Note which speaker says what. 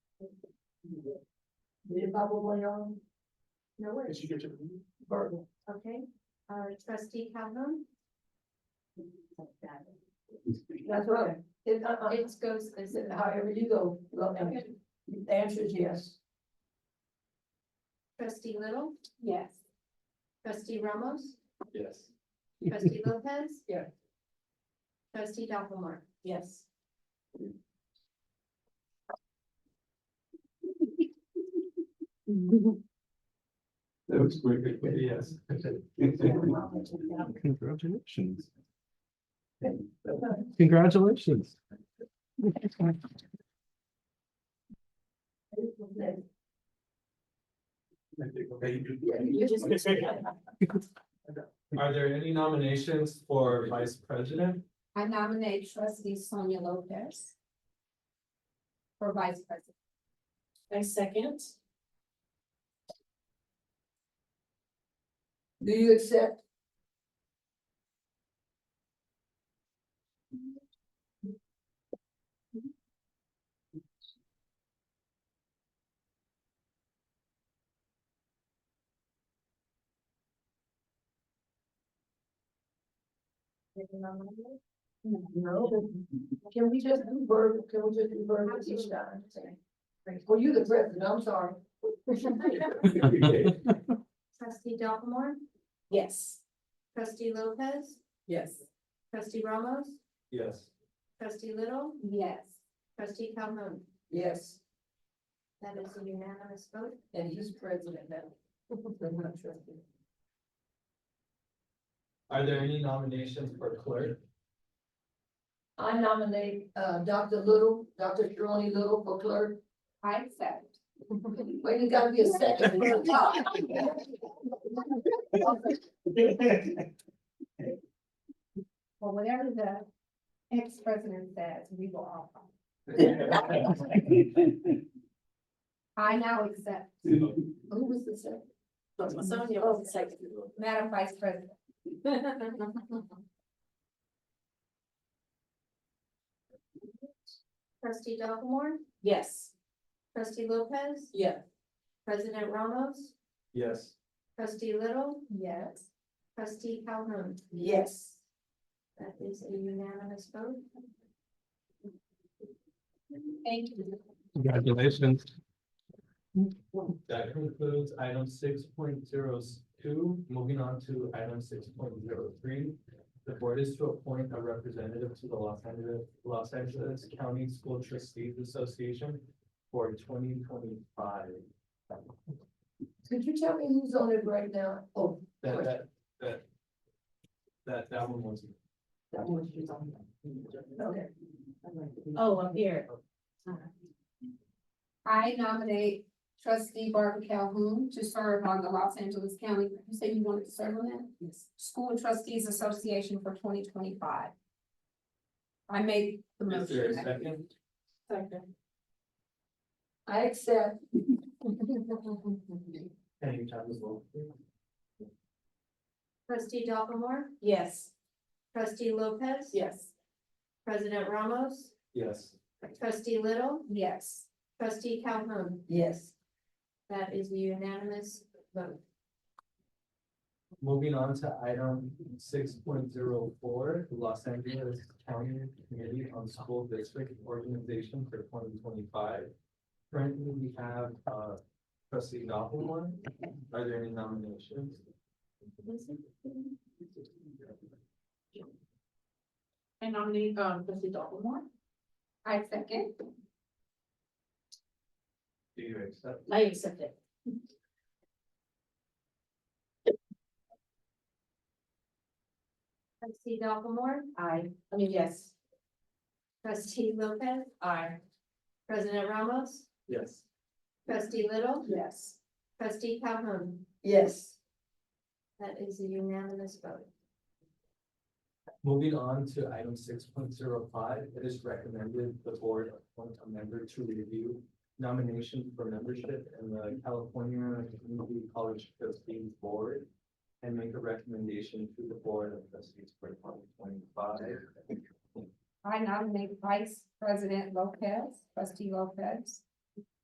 Speaker 1: probably on. No
Speaker 2: Did
Speaker 1: worries,
Speaker 2: you get your? Barb.
Speaker 1: okay, uh, trustee Calhoun?
Speaker 3: That's right. It, uh, uh,
Speaker 1: It uh, goes this.
Speaker 3: it- however you go, look, and
Speaker 1: Okay.
Speaker 3: the answer is yes.
Speaker 1: Trustee Little,
Speaker 4: Yes.
Speaker 1: trustee Ramos,
Speaker 2: Yes.
Speaker 1: trustee Lopez?
Speaker 3: Yeah.
Speaker 1: Trustee Dopplemore,
Speaker 4: Yes.
Speaker 2: That was quick, but yes.
Speaker 5: Congratulations. Congratulations.
Speaker 2: Are there any nominations for vice president?
Speaker 4: I nominate trustee Sonia Lopez. For vice president. I second.
Speaker 3: Do you accept? No. Can we just do verbal, can we just do verbal each time? Well, you the president, I'm sorry.
Speaker 1: trustee Dopplemore,
Speaker 4: Yes.
Speaker 1: trustee Lopez,
Speaker 4: Yes.
Speaker 1: trustee Ramos,
Speaker 2: Yes.
Speaker 1: trustee Little,
Speaker 4: Yes.
Speaker 1: trustee Calhoun.
Speaker 3: Yes,
Speaker 1: That is a unanimous vote.
Speaker 3: and he's president now. I'm not sure.
Speaker 2: Are there any nominations for clerk?
Speaker 3: I nominate, uh, Dr. Little, Dr. Sharoni Little for clerk.
Speaker 4: I accept.
Speaker 3: Wait, you gotta be a second. for the top.
Speaker 4: Well, whatever the ex-president says, we will all. follow. I now accept.
Speaker 3: Who was the second? Oh,
Speaker 4: Sonia was second. Madam Vice President.
Speaker 1: Trustee Dopplemore,
Speaker 4: Yes.
Speaker 1: trustee Lopez,
Speaker 3: Yeah.
Speaker 1: president Ramos,
Speaker 2: Yes.
Speaker 1: trustee Little,
Speaker 4: Yes.
Speaker 1: trustee Calhoun.
Speaker 3: Yes.
Speaker 1: That is a unanimous vote.
Speaker 4: Thank you.
Speaker 5: Congratulations.
Speaker 2: That concludes item six point zero two, moving on to item six point zero three. The board is to appoint a representative to the Los Angeles, Los Angeles County School Trustees Association for twenty twenty-five.
Speaker 3: Could you tell me who's on it right now? Oh,
Speaker 2: That, that, that. That, that one was.
Speaker 3: that one she's on. Okay.
Speaker 4: Oh, I'm here. I nominate trustee Barbara Calhoun to serve on the Los Angeles County, you say you wanted to serve on that? Yes. School Trustees Association for twenty twenty-five. I made the
Speaker 2: Is there a
Speaker 4: motion.
Speaker 2: second?
Speaker 3: I accept.
Speaker 2: Any time as well.
Speaker 1: Trustee Dopplemore,
Speaker 4: Yes.
Speaker 1: trustee Lopez.
Speaker 4: Yes.
Speaker 1: President Ramos,
Speaker 2: Yes.
Speaker 1: trustee Little,
Speaker 4: Yes.
Speaker 1: trustee Calhoun.
Speaker 3: Yes.
Speaker 1: That is a unanimous vote.
Speaker 2: Moving on to item six point zero four, Los Angeles County Committee on School District Organization for twenty twenty-five. Currently, we have, uh, trustee Dopplemore. Are there any nominations?
Speaker 4: I nominate, um, trustee Dopplemore. I second.
Speaker 2: Do you accept?
Speaker 4: I accept it.
Speaker 1: Trustee Dopplemore,
Speaker 4: I, I mean, yes.
Speaker 1: trustee Lopez,
Speaker 4: I.
Speaker 1: president Ramos,
Speaker 2: Yes.
Speaker 1: trustee Little,
Speaker 4: Yes.
Speaker 1: trustee Calhoun.
Speaker 3: Yes.
Speaker 1: That is a unanimous vote.
Speaker 2: Moving on to item six point zero five, it is recommended the board appoint a member to review nomination for membership in the California Community College Trustees Board and make a recommendation to the Board of Trustees for twenty twenty-five.
Speaker 4: I nominate Vice President Lopez, trustee Lopez,